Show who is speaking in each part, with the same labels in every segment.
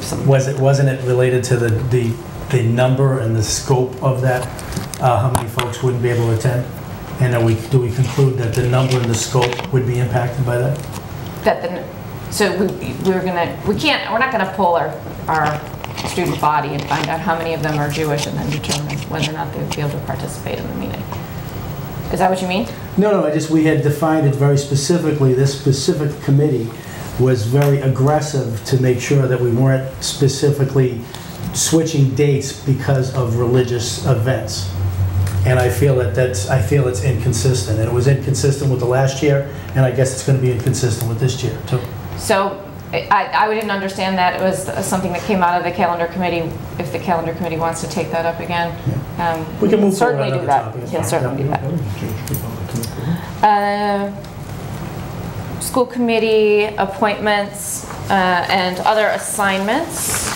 Speaker 1: some,
Speaker 2: Was it, wasn't it related to the, the, the number and the scope of that? Uh, how many folks wouldn't be able to attend? And are we, do we conclude that the number and the scope would be impacted by that?
Speaker 1: that the, so we, we were gonna, we can't, we're not gonna pull our, our student body and find out how many of them are Jewish and then determine whether or not they would be able to participate in the meeting. Is that what you mean?
Speaker 2: No, no, I just, we had defined it very specifically. This specific committee was very aggressive to make sure that we weren't specifically switching dates because of religious events. And I feel that that's, I feel it's inconsistent. And it was inconsistent with the last year, and I guess it's going to be inconsistent with this year, too.
Speaker 1: So I, I didn't understand that. It was something that came out of the calendar committee. If the calendar committee wants to take that up again, um,
Speaker 2: We can move forward
Speaker 1: certainly
Speaker 2: on
Speaker 1: do
Speaker 2: other
Speaker 1: that.
Speaker 2: topics.
Speaker 1: Can certainly do that. Uh, School committee appointments uh, and other assignments.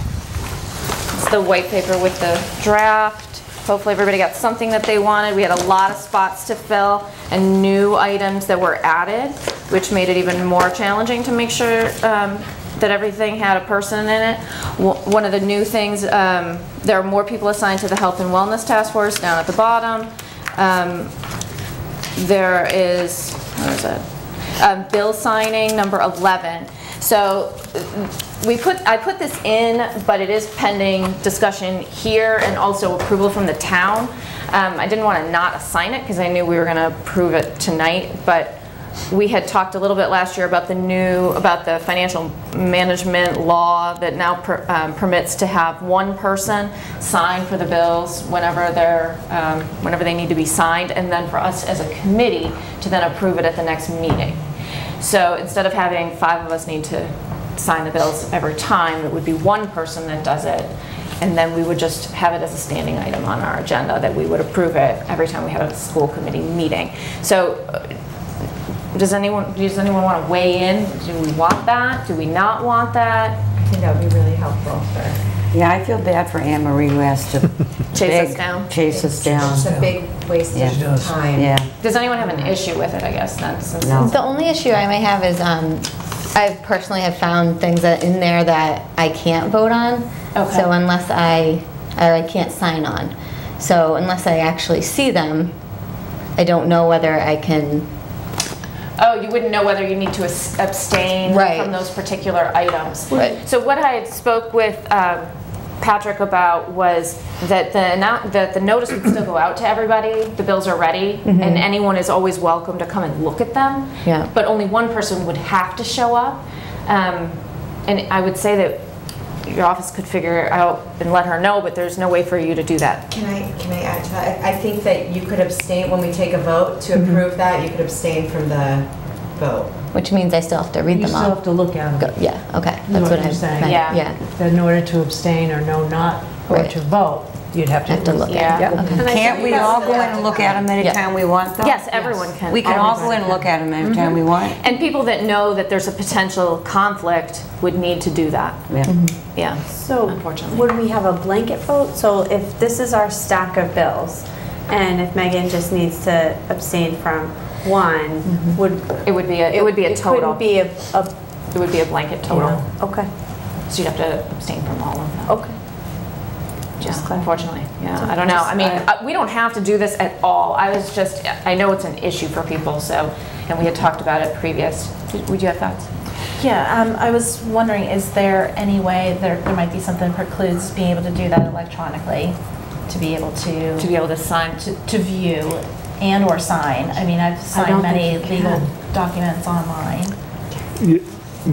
Speaker 1: It's the white paper with the draft. Hopefully, everybody got something that they wanted. We had a lot of spots to fill and new items that were added, which made it even more challenging to make sure um, that everything had a person in it. Wo- One of the new things, um, there are more people assigned to the Health and Wellness Task Force down at the bottom. Um, There is, what is it? Um, Bill signing, number 11. So we put, I put this in, but it is pending discussion here and also approval from the town. Um, I didn't want to not assign it because I knew we were going to approve it tonight, but we had talked a little bit last year about the new, about the financial management law that now per- um, permits to have one person sign for the bills whenever they're, um, whenever they need to be signed, and then for us as a committee to then approve it at the next meeting. So instead of having five of us need to sign the bills every time, it would be one person that does it. And then we would just have it as a standing item on our agenda that we would approve it every time we had a school committee meeting. So uh, does anyone, does anyone want to weigh in? Do we want that? Do we not want that? I think that would be really helpful for.
Speaker 3: Yeah, I feel bad for Anne Marie who has to.
Speaker 1: Chase us
Speaker 3: beg-
Speaker 1: down.
Speaker 3: Chase us down,
Speaker 4: It's a big waste
Speaker 3: Yeah. She
Speaker 4: of
Speaker 2: does.
Speaker 4: time.
Speaker 3: yeah.
Speaker 1: Does anyone have an issue with it, I guess, then? since-
Speaker 3: No.
Speaker 5: The only issue I may have is um, I personally have found things that in there that I can't vote on.
Speaker 1: Okay.
Speaker 5: So unless I, or I can't sign on. So unless I actually see them, I don't know whether I can,
Speaker 1: Oh, you wouldn't know whether you need to as- abstain
Speaker 5: Right.
Speaker 1: from those particular items.
Speaker 5: Right.
Speaker 1: So what I had spoke with um, Patrick about was that the, annou- that the notice would still go out to everybody, the bills are ready, and anyone is always welcome to come and look at them.
Speaker 5: Yeah.
Speaker 1: But only one person would have to show up. Um, And I would say that your office could figure out and let her know, but there's no way for you to do that.
Speaker 4: Can I, can I add to that? I I think that you could abstain, when we take a vote to approve that, you could abstain from the vote.
Speaker 5: which means I still have to read
Speaker 6: You
Speaker 5: them
Speaker 6: still have
Speaker 5: all.
Speaker 6: to look at
Speaker 5: Go-
Speaker 6: them,
Speaker 5: Yeah, okay,
Speaker 6: know
Speaker 5: that's
Speaker 6: what
Speaker 5: what
Speaker 6: I'm
Speaker 5: I'm
Speaker 6: saying?
Speaker 5: saying.
Speaker 1: Yeah.
Speaker 6: that in order to abstain or no not, or
Speaker 5: Right.
Speaker 6: to vote, you'd have
Speaker 5: I
Speaker 6: to.
Speaker 5: have to look
Speaker 1: Yeah.
Speaker 5: at it. Okay.
Speaker 3: Can't we all go in and look at them
Speaker 5: Yeah.
Speaker 3: anytime we want though?
Speaker 1: Yes, everyone can.
Speaker 3: We can all go in
Speaker 1: Everyone
Speaker 3: and look at them
Speaker 1: Mm-hmm.
Speaker 3: anytime we want.
Speaker 1: And people that know that there's a potential conflict would need to do that.
Speaker 3: Yeah.
Speaker 1: Yeah.
Speaker 7: So
Speaker 1: Unfortunately.
Speaker 7: would we have a blanket vote? So if this is our stack of bills, and if Megan just needs to abstain from one, would.
Speaker 1: It would be a, Mm-hmm. it would be a total.
Speaker 7: It couldn't be a, a-
Speaker 1: It would be a blanket total.
Speaker 7: okay,
Speaker 1: So you'd have to abstain from all of them.
Speaker 7: okay.
Speaker 1: Just
Speaker 7: Oh, clarify.
Speaker 1: Unfortunately, yeah, I don't know. I mean, uh, we don't have to do this at all. I was just, I know it's an issue for people, so, and we had talked about it previous. Did- Would you have thoughts?
Speaker 8: Yeah, um, I was wondering, is there any way, there, there might be something precludes being able to do that electronically, to be able to,
Speaker 1: To be able to sign,
Speaker 8: to, to view and or sign? I mean, I've signed
Speaker 7: don't
Speaker 8: many
Speaker 7: think you
Speaker 8: legal documents online.
Speaker 9: Y-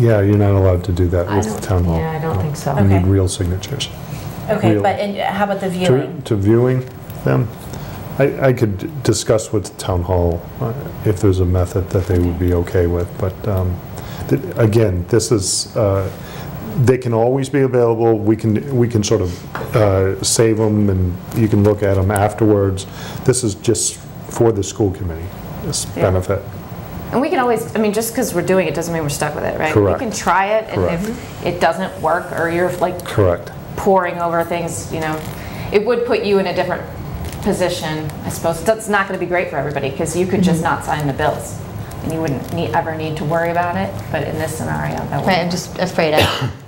Speaker 9: Yeah, you're not allowed to do that
Speaker 6: I
Speaker 9: with
Speaker 6: don't-
Speaker 9: the town hall.
Speaker 6: Yeah, I don't think so.
Speaker 9: You need
Speaker 8: Okay.
Speaker 9: real signatures.
Speaker 8: Okay,
Speaker 9: Really?
Speaker 8: but and how about the
Speaker 9: To
Speaker 8: viewing?
Speaker 9: to viewing them, I I could discuss with town hall uh, if there's a method that they would be okay with, but um, th- again, this is, uh, they can always be available, we can, we can sort of uh, save them and you can look at them afterwards. This is just for the school committee's
Speaker 1: Yeah.
Speaker 9: benefit.
Speaker 1: and we can always, I mean, just because we're doing it doesn't mean we're stuck with it, right?
Speaker 9: Correct.
Speaker 1: We can try it, and if it doesn't work, or you're like
Speaker 9: Correct.
Speaker 1: poring over things, you know, it would put you in a different position, I suppose. That's not going to be great for everybody because you could just not sign the bills and you wouldn't need, ever need to worry about it. But in this scenario, that
Speaker 5: Right, I'm
Speaker 1: would.
Speaker 5: just afraid I